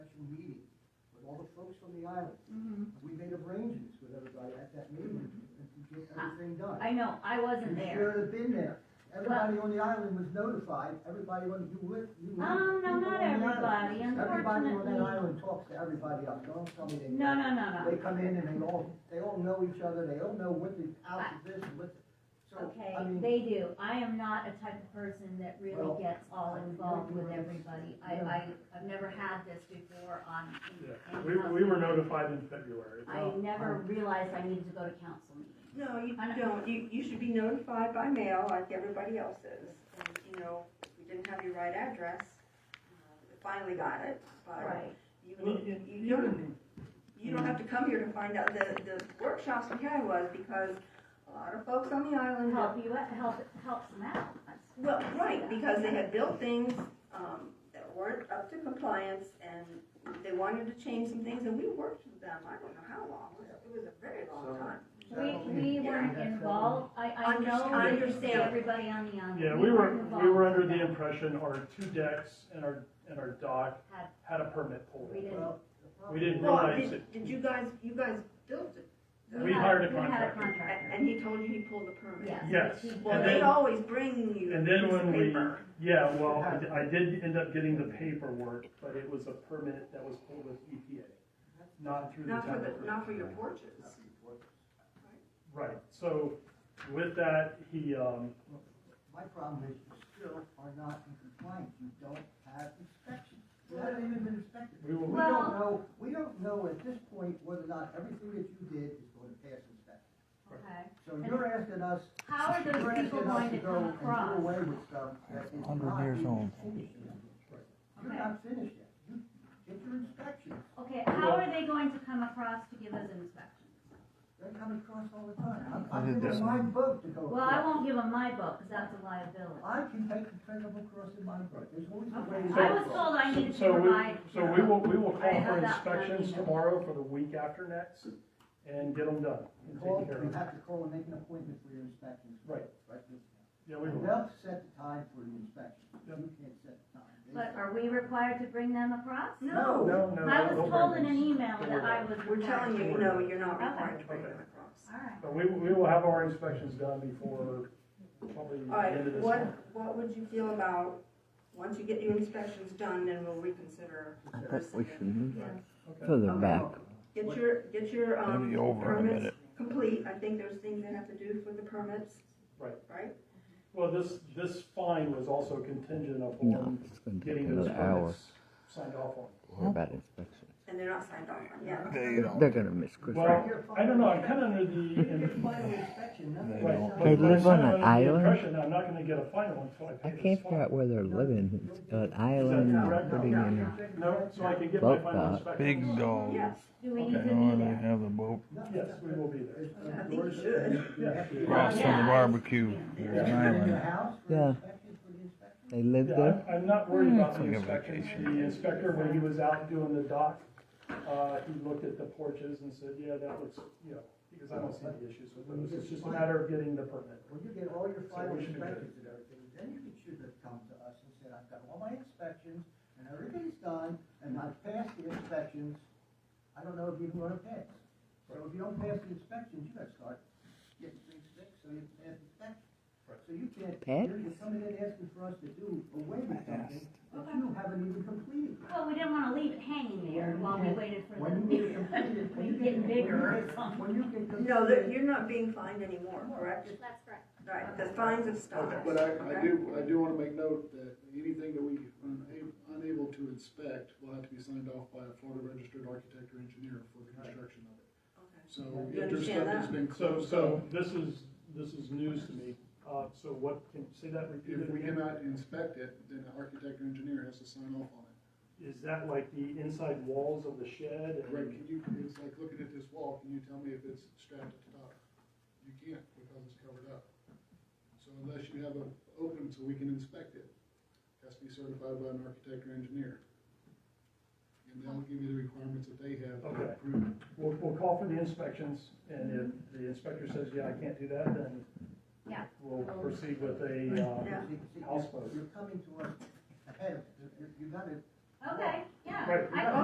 folks from the island. Mhm. We made arrangements with everybody at that meeting to get everything done. Ah, I know, I wasn't You there. should have been there. Everybody on the island was notified, everybody on, you were, you were. Oh, no, you were not on the everybody, island. Everybody on that unfortunately. island talks to everybody else, don't tell me they. No, no, no, They no. come in and they all, they all know each other, they all know what the out of this, and what, the- so, Okay, I mean. they do. I am not a type of person that Well, really gets all I- involved you- with everybody. I, I, I've never had this before on. in- Yeah, in we, housing. we were notified in February. I never realized I needed to go to council meetings. No, you I know. don't. You, you should be notified by mail like everybody else is. And, you know, we didn't have your right address. Uh, we Finally got it, but Right. you, you don't, you don't have to come here to find out. The, the workshops we had was because a lot of folks on the island. Help you, out- help, helps them out. That's- Well, right, because they had built things, um, that weren't up to compliance and they wanted to change some things and we worked with them, I don't know how long. It was- It was a very long So- time. We, we weren't involved. I, I Under- know I that understand. everybody on the island. Yeah, we were, weren't we involved were with under the that. impression our two decks and our, and our dock Had- had a permit pool. We didn't. Well, We didn't Well, realize it. did, did you guys, you guys built it? We We had- hired a We had a contractor. And, contractor. and he told you he pulled the permit? Yes. Yes. but he- Well, And they then- always bring you a And piece then of when we, paper. yeah, well, I, di- I did end up getting the paperwork, but it was a permit that was pulled with E EPA, not through the Not town. for of the, Griffin. not for your porches. Right, so with that, he, um, My problem is you still are not in compliance, you don't have inspections. You haven't even been inspected. We will- We Well- don't know, we don't know at this point whether or not everything that you did is going to pass inspection. Okay. So you're asking us, How are you're those people asking us going to to go come and do across? away with stuff that is not. 100 years even old. finished yet. You're Okay. not finished yet. You get your inspections. Okay, how are they going to come across to give us an inspection? They come across all the time. I I'm, I'm did giving this my one. book to go. Well, I across. won't give them my book, because that's a liability. I can take the principal across in my book. There's always a way. Okay. to I go was across. told I needed to So we, provide. so we will, we will I call for have that one inspections email. tomorrow for the week after next and get them done You and call, taken care you of. have to call and make an appointment for your inspections. Right. Right. Yeah, we will. They'll set the time for the inspection. You can't set the time. They- But are we required to bring them across? No, No, no. I was don't worry. told in an email that Don't worry I about was. we're telling you, no, you're not required to bring Okay. them across. All right. But we, we will have our inspections done before probably All the end right, of this what, month. what would you feel about, once you get your inspections done, then we'll reconsider. I bet we should move Okay. further Okay. back. Get your, get your, um, Maybe over in a permits minute. complete. I think there's things they have to do for the permits. Right. Right? Well, this, this fine was also contingent No, upon it's gonna take getting those another hour. permits signed off on. What about inspection? And they're not signed off on yet. They're gonna miss Christmas. Well, I don't know, I'm kinda under the, Your im- final inspection, nothing. right. don't- but- They but live I'm on kinda an under the island? impression I'm not gonna get a final until I I pay this can't figure fine. out where they're living. It's an island they're putting in a No, so I can get my Well, final uh, inspections. Big dog. Yes. Do we Okay. need to Know be they there? have the boat Yes, we will be there. I think you should. across from Yeah. the barbecue. You're There's an in your island. house for Yeah. inspection, for the inspection? They live Yeah, there. I'm, I'm not worried about the It's Hmm. like a inspections. vacation. The inspector, when he was out doing the dock, uh, he looked at the porches and said, yeah, that looks, you know, because I don't see any issues with those. It's just a matter of getting the permit. When you get all your final we should be good. inspections and everything, then you can- should have come to us and said, I've got all my inspections, and everything's done, and I've passed the inspections, I don't know if you can run a pass. So if you don't pass the inspections, you gotta start getting things fixed, so you can pass inspections. So you can't, Pass? you're you're coming in asking for us to do away with something that you haven't even completed. Well, we didn't want to leave it hanging there while we waited for When you get them. completed, when you We're get. getting when you bigger or get- something. When you get completed. No, that you're not being fined anymore, correct? That's correct. Right, the fines have stopped. But I, I correct? do, I do wanna make note that anything that we are una- unable to inspect will have to be signed off by a Florida registered architect or engineer for the construction of it. Okay. So You if there's understand stuff that's been So, closed, so so this is, this is news to me. Uh, so what, can, say that if repeated we again? cannot inspect it, then the architect or engineer has to sign off on it. Is that like the inside walls of the shed? Right, can you, it's like looking at this wall, can you tell me if it's strapped at the top? You can't, because it's covered up. So unless you have an open so we can inspect it, it has to be certified by an architect or engineer. And they'll give you the requirements that they have to Okay. approve it. We'll, we'll call for the inspections and if the inspector says, yeah, I can't do that, then Yeah. we'll proceed with a, uh, Yeah. See- see, House vote. You're coming to us ahead of, you- you gotta Okay, yeah. Right. I-